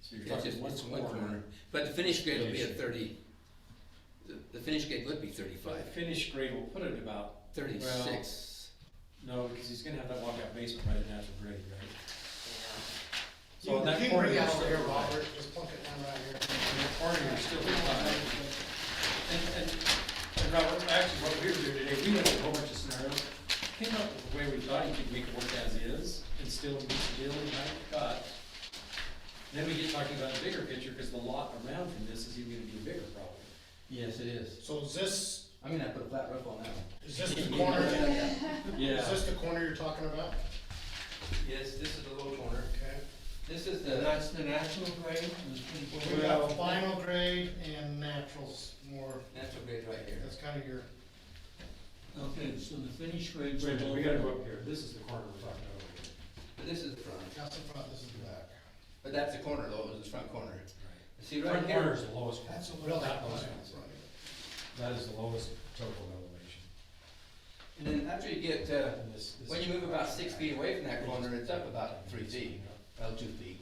So you're It's just, talking it's one one corner. corner, but the finish grade will be at Finish. thirty, the, the finish grade would be But the thirty-five, finished grade, we'll put it about, thirty-six. no, because he's gonna have that walkout basement right at natural grade, right? You So on that you corner, bring you're out still here, right. Robert, just plunk it down right here. On that corner, you're still fine. And, and, and Robert, actually, what we were doing today, we looked at a whole bunch of scenarios, came up with a way we thought you could make it work as is, and still meet the deal we had cut. Then we get talking about the bigger picture, because the lot around from this is even gonna be a bigger problem. Yes, it is. So is this, I'm gonna have to put a flat roof on that one. is this the corner, is Yeah. this the corner you're talking about? Yes, this is the low corner. Okay. This is the, that's the national grade, it's pretty Well, we got final grade and naturals more, National grade right here. that's kind of your, Okay, so the finish grade's. Wait a minute, above- we gotta go up here, this is the corner we're talking about over here. But this is the front, that's the front, this is the back. but that's the corner though, it's the front corner. See right Front corner here, is the lowest. one. That's a Not really high most point. ones. That is the lowest total elevation. and then after you get, uh, And this- this when you is- move about six feet away from that corner, it's up about three feet, well, two feet.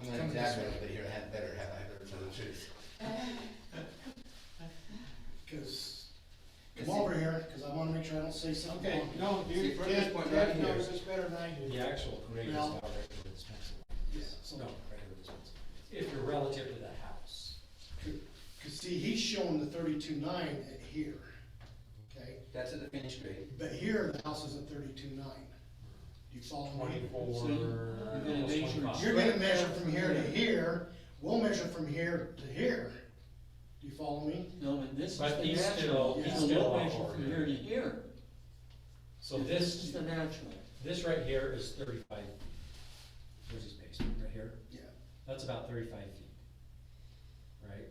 I'm gonna Come this exaggerate a way. little bit here, I had better have, I better tell the truth. Cause, See- come over here, cause I wanna make sure I don't say something. Okay, wrong. no, See, dude, from Ted, this point right Ted here, knows this better than I do. the actual grade is No. not right where this pencil. So- No, right where this pencil. If you're relative to the house. Cause see, he's showing the thirty-two nine at here, okay? that's at the finish grade. But here, the house is at thirty-two nine. You follow me? Twenty-four. So you're gonna measure- almost You're 25. gonna measure from here to here, we'll measure from here to here. Do you follow me? No, but this is But the he's natural, still- he's it's a still low on measure board from here. here to here. So This is this, the natural. this right here is thirty-five. feet. There's his basement right here. Yeah. That's about thirty-five feet. Right?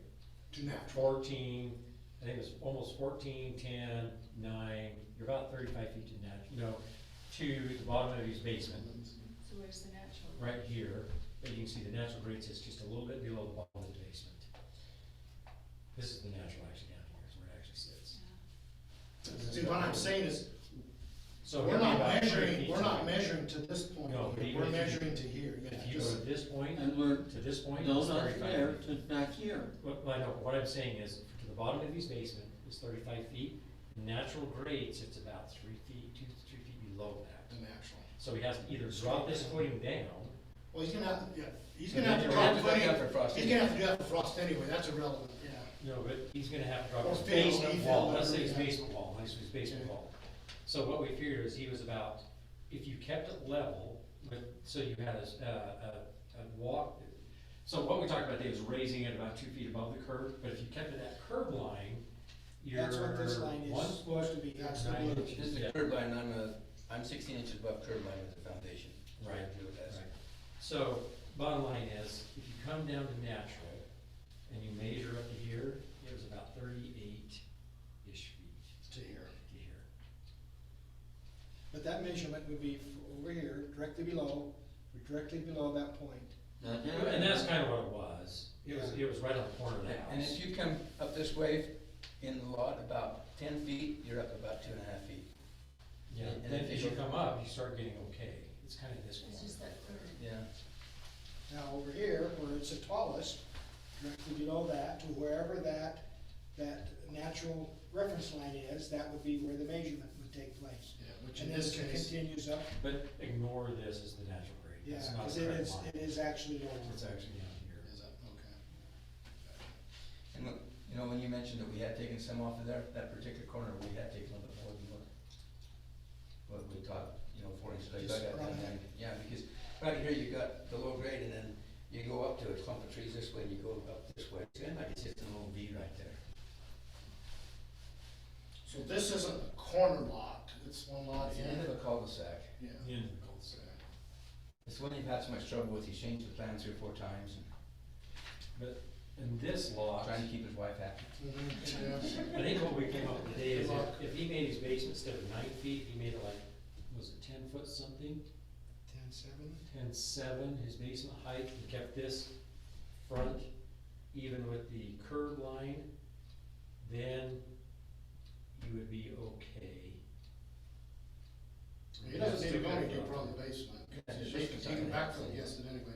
To natural. Fourteen, I think it was almost fourteen, ten, nine, you're about thirty-five feet to nat, no, to the bottom of his basement, So where's the natural? right here. But you can see the natural grade sits just a little bit below the bottom of the basement. This is the natural actually down here, is where it actually sits. See, what I'm saying is, So we're it'd be not about three measuring, feet we're to- not measuring to this point, No, but here. even we're if you- measuring to here, yeah. If you go just- to this point, And we're, to this point, no, it's not thirty-five there, feet. to back here. What, I know, what I'm saying is, to the bottom of his basement is thirty-five feet, natural grade sits about three feet, two, to three feet below The that. natural. So he has to either drop this footing down, Well, he's gonna have, to- yeah, he's So gonna have then to you're drop That's what footing, you have for frost. he's gonna have to do that for frost anyway, that's irrelevant, yeah. no, but he's gonna have to drop Or his fill, basement leave wall, it, let's whatever say his you have. basement wall, let's say his basement Yeah. wall. So what we figured is he was about, if you kept it level, but, so you had a, s- a- a, a walk. So what we talked about today is raising it about two feet above the curb, but if you kept it at curb line, you're That's what this line one is supposed to be, that's the nine blue. inches. This is Yeah. the curb line, I'm a, I'm sixteen inches above curb line with the foundation. That's what I Right. do with that. Right. So, bottom line is, if you come down to natural, and you measure up to here, it was about thirty-eight-ish feet to here. to here. But that measurement would be f- over here, directly below, directly below that point. Now, you know- And that's kind of what it was, it was, it was right on the corner of the And house. if you come up this way in the lot about ten feet, you're up about two and a half feet. Yeah, and and then if as you you go- come up, you start getting okay, it's kind of this It's just corner. that curve. Yeah. Now, over here, where it's the tallest, directly below that, to wherever that, that natural reference line is, that would be where the measurement would take place. Yeah, which And in this this case, continues up, But ignore this as the natural grade, yeah, it's not because the it correct is, line. it is actually over. It's actually down here. is that, okay. And look, you know, when you mentioned that we had taken some off of there, that particular corner, we had taken a little bit more than what, what we thought, you know, four inches. like Just I got around that. Yeah, because right here, you got the low grade and then you go up to a clump of trees this way and you go up this way. It's kind of like it's just a little V right there. So this isn't a corner lot, it's one lot It's the end of a cul-de-sac. yeah. The end of the cul-de-sac. It's one you've had so much trouble with, he's changed the plan three or four times and But in this lot. trying to keep his wife happy. I think what we came up with today is if, if he made his basement instead of nine feet, he made it like, was it ten foot something? Ten seven? Ten seven, his basement height, and kept this front even with the curb line, then you would be okay. He doesn't need to go any deeper on the basement, 'cause Yeah, it's he just can a back tiny house. it anyway.